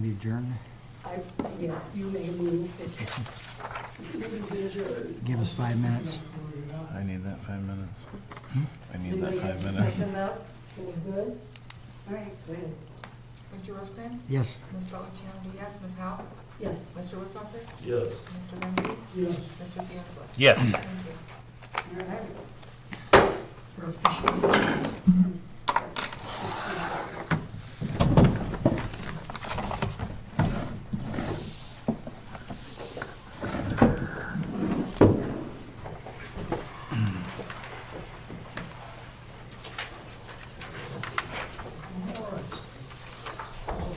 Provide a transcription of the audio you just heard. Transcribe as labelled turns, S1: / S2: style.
S1: adjourn?
S2: I, yes, you may move. Move is yours.
S1: Give us five minutes.
S3: I need that five minutes. I need
S2: Anybody
S3: that
S2: have
S3: five
S2: to
S3: minutes.
S2: step them out? We're good? All right, go ahead.
S4: Mr. Rosecrans?
S1: Yes.
S4: Ms. Bellantino, yes. Ms. Howe?
S2: Yes.
S4: Mr. Wissaucer?
S5: Yes.
S4: Mr. Lindsey?
S2: Yes.
S4: Mr. Theodore?
S6: Yes.
S4: Thank you.
S2: All right. We're officially